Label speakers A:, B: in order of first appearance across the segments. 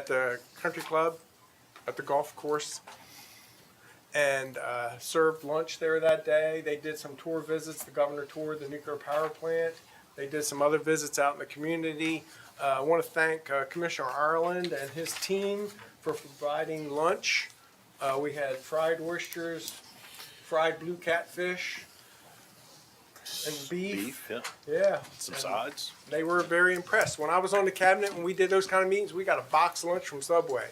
A: at the country club, at the golf course, and uh, served lunch there that day. They did some tour visits. The governor toured the nuclear power plant. They did some other visits out in the community. Uh, I want to thank uh, Commissioner Ireland and his team for providing lunch. Uh, we had fried oysters, fried blue catfish, and beef.
B: beef, yeah,
A: Yeah.
B: some
A: And-
B: sides.
A: they were very impressed. When I was on the cabinet, when we did those kind of meetings, we got a box lunch from Subway.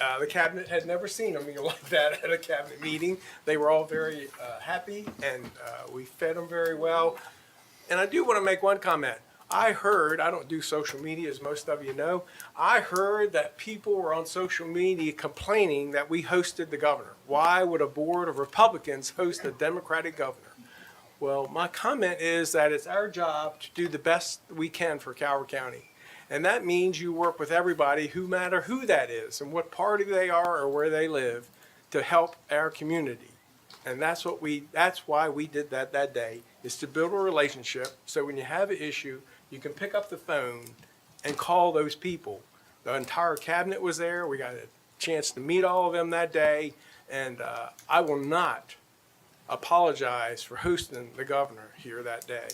A: Uh, the cabinet had never seen a meal like that at a cabinet meeting. They were all very uh, happy, and uh, we fed them very well. And I do want to make one comment. I heard, I don't do social media as most of you know, I heard that people were on social media complaining that we hosted the governor. Why would a board of Republicans host a Democratic governor? Well, my comment is that it's our job to do the best we can for Coward County. And that means you work with everybody, who matter who that is and what party they are or where they live, to help our community. And that's what we, that's why we did that that day, is to build a relationship. So when you have an issue, you can pick up the phone and call those people. The entire cabinet was there. We got a chance to meet all of them that day. And uh, I will not apologize for hosting the governor here that day.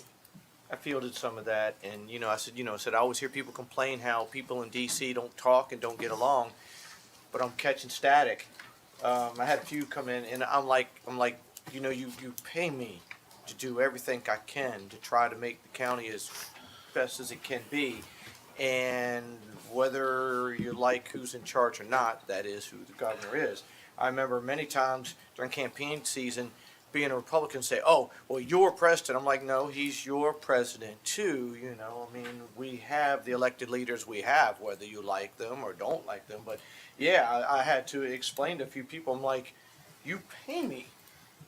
C: I fielded some of that, and you know, I said, you know, I said I always hear people complain how people in D.C. don't talk and don't get along, but I'm catching static. Um, I had a few come in, and I'm like, I'm like, you know, you you pay me to do everything I can to try to make the county as best as it can be, and whether you like who's in charge or not, that is who the governor is. I remember many times during campaign season being a Republican say, "Oh, well, you're president." I'm like, "No, he's your president too." You know, I mean, we have the elected leaders we have, whether you like them or don't like them. But yeah, I, I had to explain to a few people. I'm like, "You pay me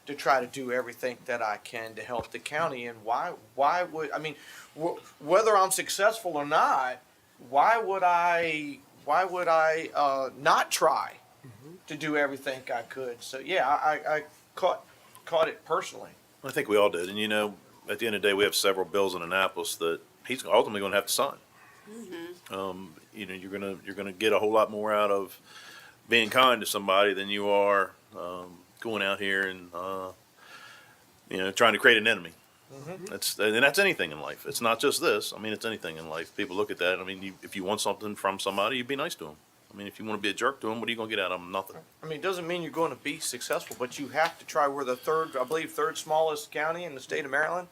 C: to try to do everything that I can to help the county, and why? Why would I mean, wh- whether I'm successful or not, why would I? Why would I uh, not try?" To do everything I could, so yeah, I, I I caught caught it personally.
B: I think we all did, and you know, at the end of the day, we have several bills in Annapolis that he's ultimately going to have to sign. Um, you know, you're gonna you're gonna get a whole lot more out of being kind to somebody than you are um, going out here and uh, you know trying to create an enemy. That's and that's anything in life. It's not just this. I mean, it's anything in life. People look at that. I mean, you, if you want something from somebody, you'd be nice to them. I mean, if you want to be a jerk to them, what are you gonna get out of them? Nothing.
C: I mean, it doesn't mean you're going to be successful, but you have to try. We're the third, I believe, third smallest county in the state of Maryland.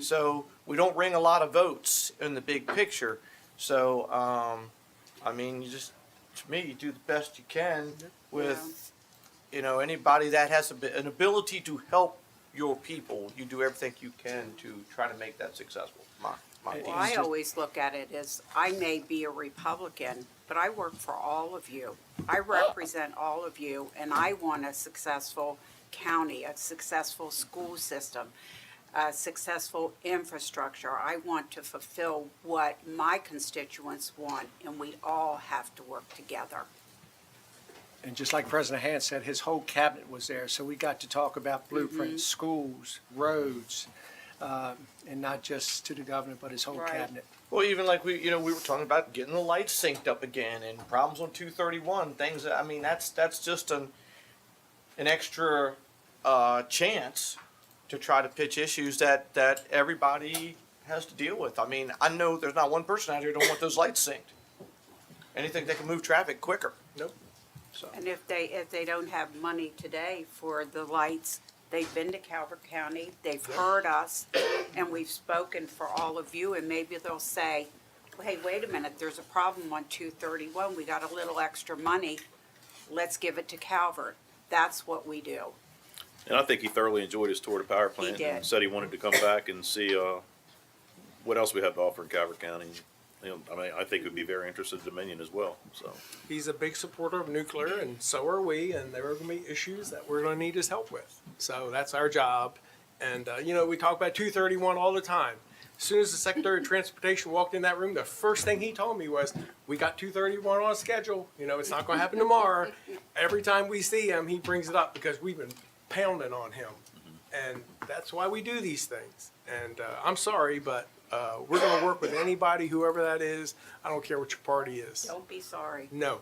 C: So we don't ring a lot of votes in the big picture. So, um, I mean, you just, to me, you do the best you can with, you know, anybody that has a bi- an ability to help your people. You do everything you can to try to make that successful. My, my
D: Well,
C: opinion.
D: I always look at it as, I may be a Republican, but I work for all of you. I represent all of you, and I want a successful county, a successful school system, a successful infrastructure. I want to fulfill what my constituents want, and we all have to work together.
E: And just like President Hans said, his whole cabinet was there, so we got to talk about blueprints, schools, roads, uh, and not just to the governor, but his whole
D: Right.
E: cabinet.
C: Well, even like we, you know, we were talking about getting the lights synced up again and problems on two thirty one. Things. that- I mean, that's that's just an an extra uh, chance to try to pitch issues that that everybody has to deal with. I mean, I know there's not one person out here who don't want those lights synced. Anything that can move traffic quicker.
A: Nope.
D: And if they, if they don't have money today for the lights, they've been to Calvert County, they've heard us, and we've spoken for all of you, and maybe they'll say, hey, wait a minute, there's a problem on two thirty-one, we got a little extra money, let's give it to Calvert. That's what we do.
B: And I think he thoroughly enjoyed his tour to power plant and
D: did.
B: said he wanted to come back and see uh, what else we have to offer in Calvert County. You know, I mean, I think would be very interested in Dominion as well. So
A: He's a big supporter of nuclear, and so are we, and there are going to be issues that we're going to need his help with. So that's our job. And, uh, you know, we talk about 231 all the time. As soon as the Secretary of Transportation walked in that room, the first thing he told me was, We got 231 on schedule. You know, it's not going to happen tomorrow. Every time we see him, he brings it up because we've been pounding on him. And that's why we do these things. And uh, I'm sorry, but Uh, we're going to work with anybody, whoever that is. I don't care what your party is.
D: Don't be sorry.
A: No,